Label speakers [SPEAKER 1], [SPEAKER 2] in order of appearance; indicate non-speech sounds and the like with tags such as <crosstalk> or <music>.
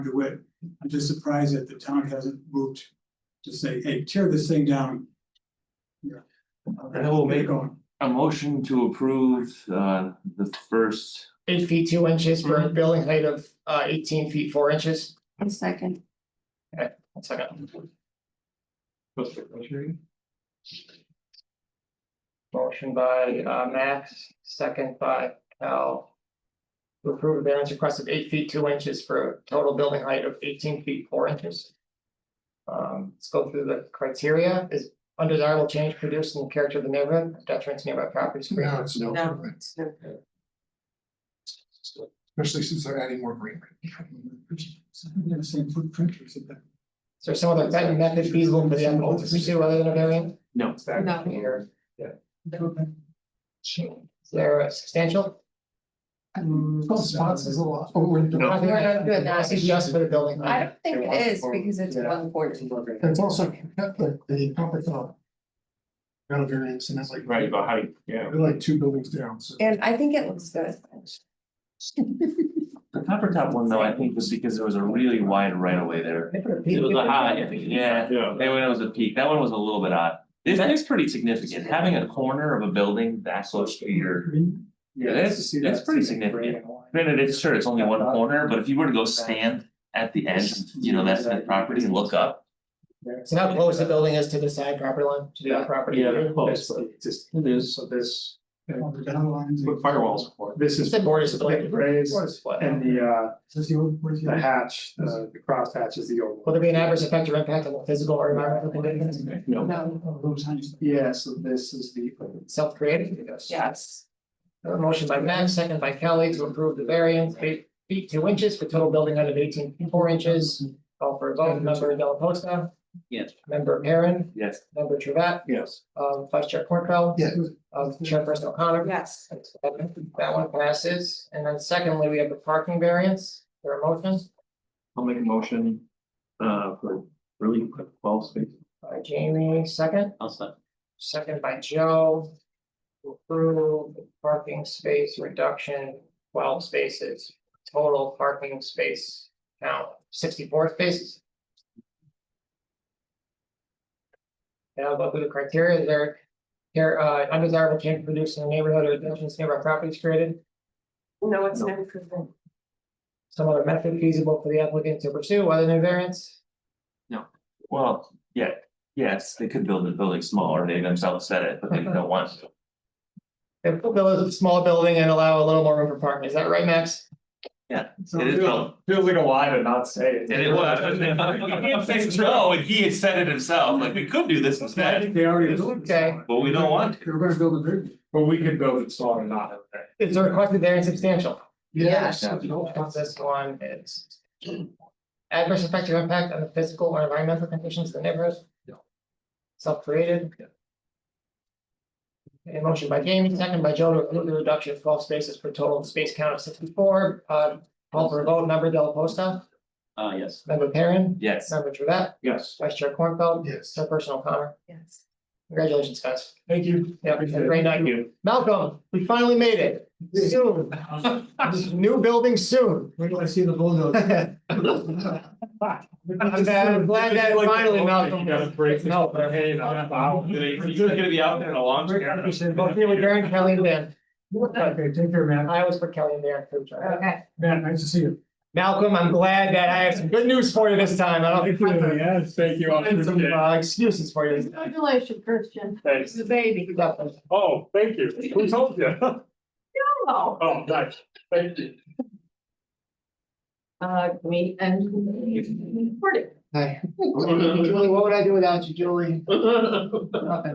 [SPEAKER 1] do it. I'm just surprised that the town hasn't moved to say, hey, tear this thing down. Yeah.
[SPEAKER 2] And we'll make-
[SPEAKER 1] Get going.
[SPEAKER 2] A motion to approve uh the first,
[SPEAKER 3] eight feet two inches for a building height of uh eighteen feet four inches.
[SPEAKER 4] A second,
[SPEAKER 3] One second. Motion by uh Max, second by Cal. To approve a variance request of eight feet two inches for a total building height of eighteen feet four inches. Um, let's go through the criteria. Is undesirable change produced in the character of the neighborhood, detriment to nearby properties.
[SPEAKER 5] No, it's no,
[SPEAKER 4] no,
[SPEAKER 5] improvement,
[SPEAKER 4] it's no.
[SPEAKER 5] especially since they're adding more greenery.
[SPEAKER 1] Yeah, same footprint or something.
[SPEAKER 3] Is there some other method- method feasible for the applicant to pursue other than a variance?
[SPEAKER 2] no,
[SPEAKER 3] Back
[SPEAKER 4] No.
[SPEAKER 3] here.
[SPEAKER 1] Okay.
[SPEAKER 3] Is there a substantial?
[SPEAKER 6] Mm,
[SPEAKER 5] Twelve spots is a lot. Oh, we're-
[SPEAKER 2] No.
[SPEAKER 3] I think
[SPEAKER 4] We're not doing that.
[SPEAKER 3] This is just for the building.
[SPEAKER 4] I don't think it is because it's
[SPEAKER 3] Yeah.
[SPEAKER 4] one forty.
[SPEAKER 5] It's also, the, the upper top. Got a variance and that's like.
[SPEAKER 2] right, about height, yeah.
[SPEAKER 5] They're like two buildings down, so.
[SPEAKER 4] And I think it looks good.
[SPEAKER 2] The copper top one though, I think was because there was a really wide right of way there.
[SPEAKER 3] They put a peak-
[SPEAKER 2] It was a high, yeah,
[SPEAKER 6] Yeah.
[SPEAKER 2] they went, it was a peak, that one was a little bit odd. This is pretty significant, having a corner of a building that close to your, Yeah, that's- that's pretty significant. granted, it's sure, it's only one corner, but if you were to go stand at the edge, you know, that's the property and look up.
[SPEAKER 3] So how close the building is to the side property line, to the other property?
[SPEAKER 6] just, it is, so this,
[SPEAKER 1] On the down lines.
[SPEAKER 6] with firewalls for, this
[SPEAKER 3] It's
[SPEAKER 6] is.
[SPEAKER 3] a border
[SPEAKER 6] Like
[SPEAKER 3] split.
[SPEAKER 6] raised,
[SPEAKER 3] Border split.
[SPEAKER 6] and the uh,
[SPEAKER 1] Is this the old, where's the?
[SPEAKER 6] the hatch, the the cross hatch is the old
[SPEAKER 3] Will
[SPEAKER 6] one.
[SPEAKER 3] there be an adverse effect or impact on the physical or environmental conditions?
[SPEAKER 2] No.
[SPEAKER 4] No,
[SPEAKER 1] Oh, those signs.
[SPEAKER 6] Yeah, so this is the.
[SPEAKER 3] Self-created, yes.
[SPEAKER 4] yes.
[SPEAKER 3] A motion by Max, second by Kelly to approve the variance, eight feet two inches for total building height of eighteen feet four inches. Call for a vote, member Delaposta,
[SPEAKER 2] Yes.
[SPEAKER 3] member Perrin,
[SPEAKER 2] Yes.
[SPEAKER 3] member Truvat,
[SPEAKER 6] Yes.
[SPEAKER 3] um, vice chair Cornfeld,
[SPEAKER 5] Yeah.
[SPEAKER 3] um, chairperson O'Connor.
[SPEAKER 4] Yes.
[SPEAKER 3] That one passes, and then secondly, we have the parking variance, there are motions
[SPEAKER 2] I'll make a motion uh for really quick twelve space.
[SPEAKER 3] by Jamie, second,
[SPEAKER 2] I'll stop.
[SPEAKER 3] second by Joe. to Approve the parking space reduction, twelve spaces, total parking space count sixty-four spaces. Now, but with the criteria there, here, uh, undesirable change produced in the neighborhood or additions to nearby properties created.
[SPEAKER 4] No, it's never proven.
[SPEAKER 3] Some other method feasible for the applicant to pursue, other than variance.
[SPEAKER 2] Well, yeah, yes, they could build a building smaller, they themselves said it, but they don't want to.
[SPEAKER 3] They build a small building and allow a little more room for parking, is that right, Max?
[SPEAKER 2] It is built,
[SPEAKER 6] Feels like a lie to not say it.
[SPEAKER 2] and
[SPEAKER 6] <laughs>
[SPEAKER 2] it was, <laughs> he had <laughs> said no, and he had said it himself, like, we could do this
[SPEAKER 1] I
[SPEAKER 2] instead,
[SPEAKER 1] think they already. built it.
[SPEAKER 3] Okay.
[SPEAKER 2] but we don't want to.
[SPEAKER 1] They were gonna build a bridge.
[SPEAKER 6] But we could build it smaller and not have that.
[SPEAKER 3] Is the requested variance substantial?
[SPEAKER 4] Yes.
[SPEAKER 3] This one is. Adverse effect or impact on the physical or environmental conditions of the neighborhood?
[SPEAKER 6] No.
[SPEAKER 3] Self-created? A motion by Jamie, second by Joe to approve the reduction of twelve spaces per total space count of sixty-four, uh, call for a vote, member Della Posta,
[SPEAKER 2] Uh, yes.
[SPEAKER 3] member Perrin,
[SPEAKER 2] Yes,
[SPEAKER 3] member Truett,
[SPEAKER 6] Yes.
[SPEAKER 3] vice chair Cornfeld,
[SPEAKER 5] Yes.
[SPEAKER 3] chairperson O'Connor.
[SPEAKER 4] Yes.
[SPEAKER 3] Congratulations, guys.
[SPEAKER 1] Thank you.
[SPEAKER 3] Yeah, have a great night.
[SPEAKER 6] you.
[SPEAKER 3] Malcolm, we finally made it. Soon.
[SPEAKER 2] <laughs>
[SPEAKER 3] New building soon. <laughs>
[SPEAKER 1] Wait till I see the
[SPEAKER 5] <laughs>
[SPEAKER 1] bulldozer.
[SPEAKER 3] I'm glad I'm glad that finally Malcolm. No, but-
[SPEAKER 6] Wow, you're gonna be out there in a long.
[SPEAKER 3] Both
[SPEAKER 6] <laughs>
[SPEAKER 3] you and Darren Kelly and Dan.
[SPEAKER 1] Okay, take care, man.
[SPEAKER 3] I always put Kelly and Dan through.
[SPEAKER 4] Okay.
[SPEAKER 1] Matt, nice to see you.
[SPEAKER 3] Malcolm, I'm glad that I have some good news for you this time. I don't think.
[SPEAKER 6] Yes, thank you. I <laughs>
[SPEAKER 3] Some
[SPEAKER 6] appreciate it.
[SPEAKER 3] uh, excuses for you.
[SPEAKER 4] Congratulations, Christian.
[SPEAKER 6] Thanks.
[SPEAKER 4] The baby.
[SPEAKER 3] Definitely.
[SPEAKER 6] Oh, thank you. Who told you?
[SPEAKER 4] Oh.
[SPEAKER 6] Oh, nice. Thank you.
[SPEAKER 4] Uh, me and. Recording.
[SPEAKER 6] <laughs>
[SPEAKER 3] Hi. Julie, what would I do without you, Julie? Nothing.